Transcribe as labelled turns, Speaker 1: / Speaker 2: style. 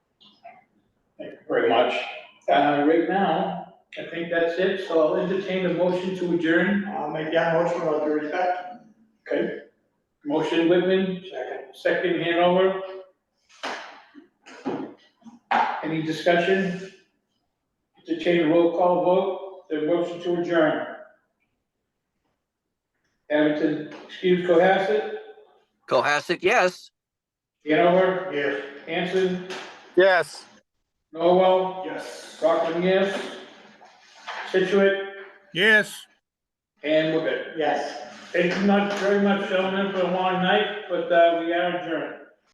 Speaker 1: very much. Uh, right now, I think that's it, so I'll entertain a motion to adjourn.
Speaker 2: I'll make that motion on thirty-second.
Speaker 1: Motion Whitman,
Speaker 2: Second.
Speaker 1: second Hanover. Any discussion? Entertain a roll call vote, the motion to adjourn. Abington, excuse Cohasset,
Speaker 3: Cohasset, yes.
Speaker 1: Hanover,
Speaker 2: Yes.
Speaker 1: Hanson,
Speaker 4: Yes.
Speaker 1: Norwell,
Speaker 2: Yes.
Speaker 1: Rockland, yes. Situate
Speaker 4: Yes.
Speaker 1: and Whitman.
Speaker 2: Yes.
Speaker 1: Thank you not very much, gentlemen, for a long night, but, uh, we are adjourned.